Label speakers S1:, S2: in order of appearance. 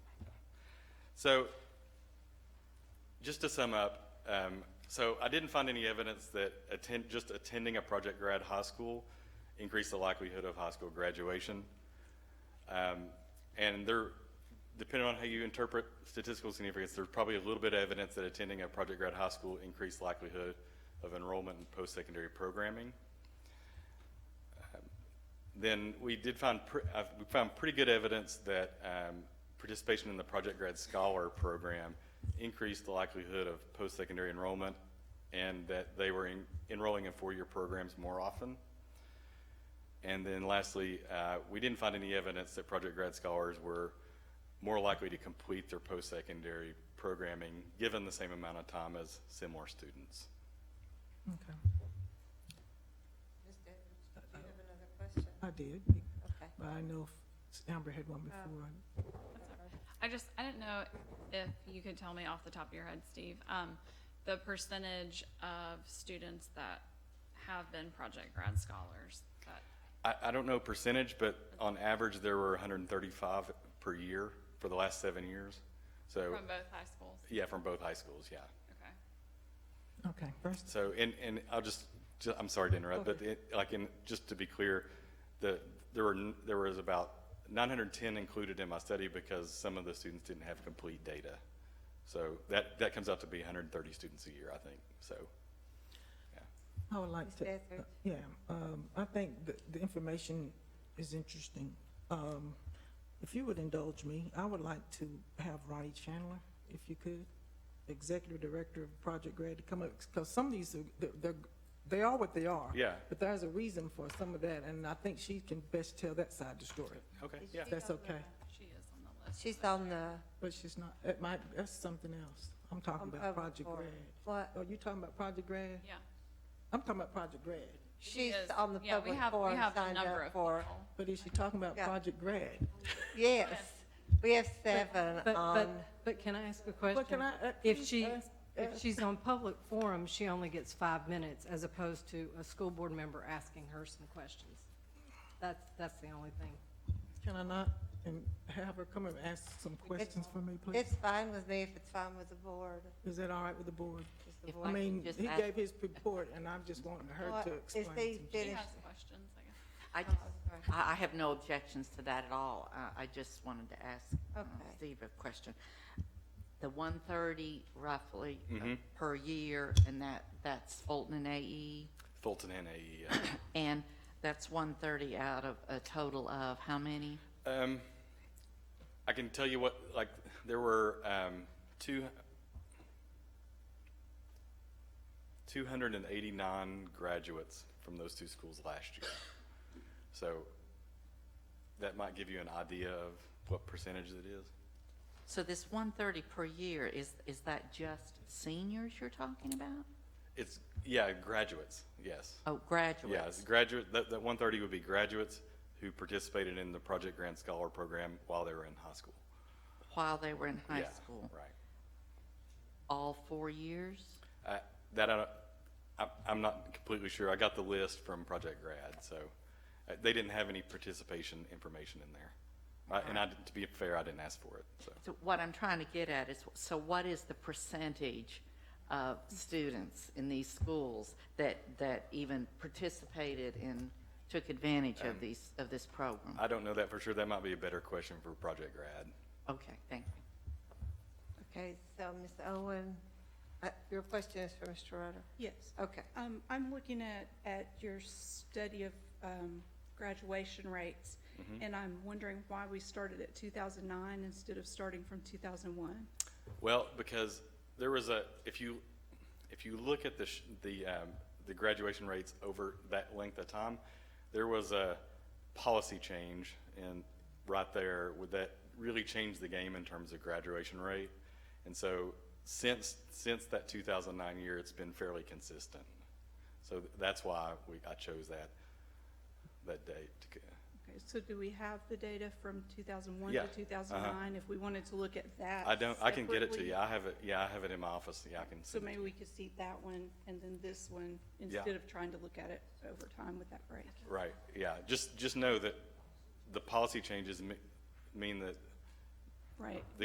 S1: So, just to sum up, um, so I didn't find any evidence that attend, just attending a project grad high school increased the likelihood of high school graduation. Um, and there, depending on how you interpret statistical significance, there's probably a little bit of evidence that attending a project grad high school increased likelihood of enrollment in post-secondary programming then we did find, pr- I've, we found pretty good evidence that um, participation in the Project Grad Scholar program increased the likelihood of post-secondary enrollment and that they were en- enrolling in four-year programs more often. And then lastly, uh, we didn't find any evidence that Project Grad Scholars were more likely to complete their post-secondary programming given the same amount of time as similar students.
S2: Okay,
S3: Ms. Edwards, do you have another question?
S2: I did,
S3: Okay.
S2: but I know if Amber had one before.
S4: I just, I didn't know if you could tell me off the top of your head, Steve, um, the percentage of students that have been project grad scholars that,
S1: I, I don't know percentage, but on average, there were 135 per year for the last seven years. So,
S4: from both high schools,
S1: yeah, from both high schools, yeah.
S4: okay?
S2: Okay, first,
S1: So, and, and I'll just, ju- I'm sorry to interrupt, but it, like, in, just to be clear, the, there were, n- there was about 910 included in my study because some of the students didn't have complete data. So that, that comes out to be 130 students a year, I think, so.
S2: I would like
S3: Ms.
S2: to, uh,
S3: Etheridge?
S2: yeah, um, I think the, the information is interesting. Um, if you would indulge me, I would like to have Ronnie Chandler, if you could, Executive Director of Project Grad, to come up, because some of these, are- they're- they're, they are what they are.
S1: Yeah.
S2: But there's a reason for some of that, and I think she can best tell that side of the story,
S1: Okay, yeah.
S2: if that's okay.
S4: She is on the list.
S3: She's on the,
S2: But she's not, it might, that's something else. I'm talking
S3: Um,
S2: about
S3: uh,
S2: Project
S3: or-
S2: Grad.
S3: what?
S2: Oh, you talking about Project Grad?
S4: Yeah.
S2: I'm talking about Project Grad.
S4: she
S3: she's
S4: is.
S3: on the
S4: Yeah, we
S3: public
S4: have- we
S3: forum
S4: have a
S3: signed
S4: number
S3: up
S4: of
S3: for.
S4: people.
S2: But is she talking about
S3: Yeah.
S2: Project Grad?
S3: Yes, we have seven
S5: But, but,
S3: on,
S5: but can I ask a question?
S2: But can I, uh,
S5: If
S2: please
S5: she,
S2: ask-
S5: if
S2: ask-
S5: she's on public forum, she only gets five minutes as opposed to a school board member asking her some questions. That's, that's the only thing.
S2: Can I not, and have her come and ask some questions for me, please?
S3: it's fine with me if it's fine with the board.
S2: Is that all right with the board?
S3: Is the
S6: If
S3: board-
S2: I
S6: I can
S2: mean,
S6: just
S2: he
S6: ask-
S2: gave his report, and I'm just wanting her
S3: Well,
S2: to
S3: Is
S2: explain.
S3: he
S2: some-
S4: She
S3: finished?
S4: has questions, I guess.
S6: I just, I, I have no objections to that at all. Uh, I just wanted to ask uh,
S3: Okay.
S6: Steve a question. The one thirty roughly uh,
S1: Mm-hmm.
S6: per year, and that, that's Fulton and AE,
S1: Fulton and E AE, yeah.
S6: and that's one thirty out of a total of how many?
S1: Um, I can tell you what, like, there were, um, two, two hundred and eighty-nine graduates from those two schools last year. So that might give you an idea of what percentage it is.
S6: So this one thirty per year, is, is that just seniors you're talking about?
S1: It's, yeah, graduates, yes.
S6: Oh, graduates?
S1: Yes, graduate, that, that one thirty would be graduates who participated in the Project Grant Scholar Program while they were in high school.
S6: While they were in high
S1: Yeah,
S6: school?
S1: Right.
S6: All four years?
S1: I- That I, don't- I'm, I'm not completely sure. I got the list from Project Grad, so uh, they didn't have any participation information in there. I- And I, to be fair, I didn't ask for it, so.
S6: So what I'm trying to get at is, so what is the percentage of students in these schools that, that even participated and took advantage of these, of this program?
S1: I don't know that for sure. That might be a better question for Project Grad.
S6: Okay, thank you.
S3: Okay, so Ms. Owen, uh, your question is for Mr. Rutter?
S7: Yes.
S3: Okay,
S7: Um, I'm looking at, at your study of, um, graduation rates,
S1: Mm-hmm.
S7: and I'm wondering why we started at two thousand nine instead of starting from two thousand one.
S1: Well, because there was a, if you, if you look at the, sh- the, um, the graduation rates over that length of time, there was a policy change and right there with that really changed the game in terms of graduation rate. And so since, since that 2009 year, it's been fairly consistent. So th- that's why we, I chose that, that date. to c-
S7: Okay, so do we have the data from two thousand one
S1: Yeah,
S7: to
S1: uh-huh.
S7: two thousand nine, if we wanted to look at that?
S1: I don't, I can get it to
S7: separately?
S1: you. I have it, yeah, I have it in my office. Yeah, I can.
S7: So
S1: send it to
S7: maybe we could see that one and then this one, instead of trying to look at it over time with that break.
S1: Right, yeah, just, just know that the policy changes me- mean that
S7: Right.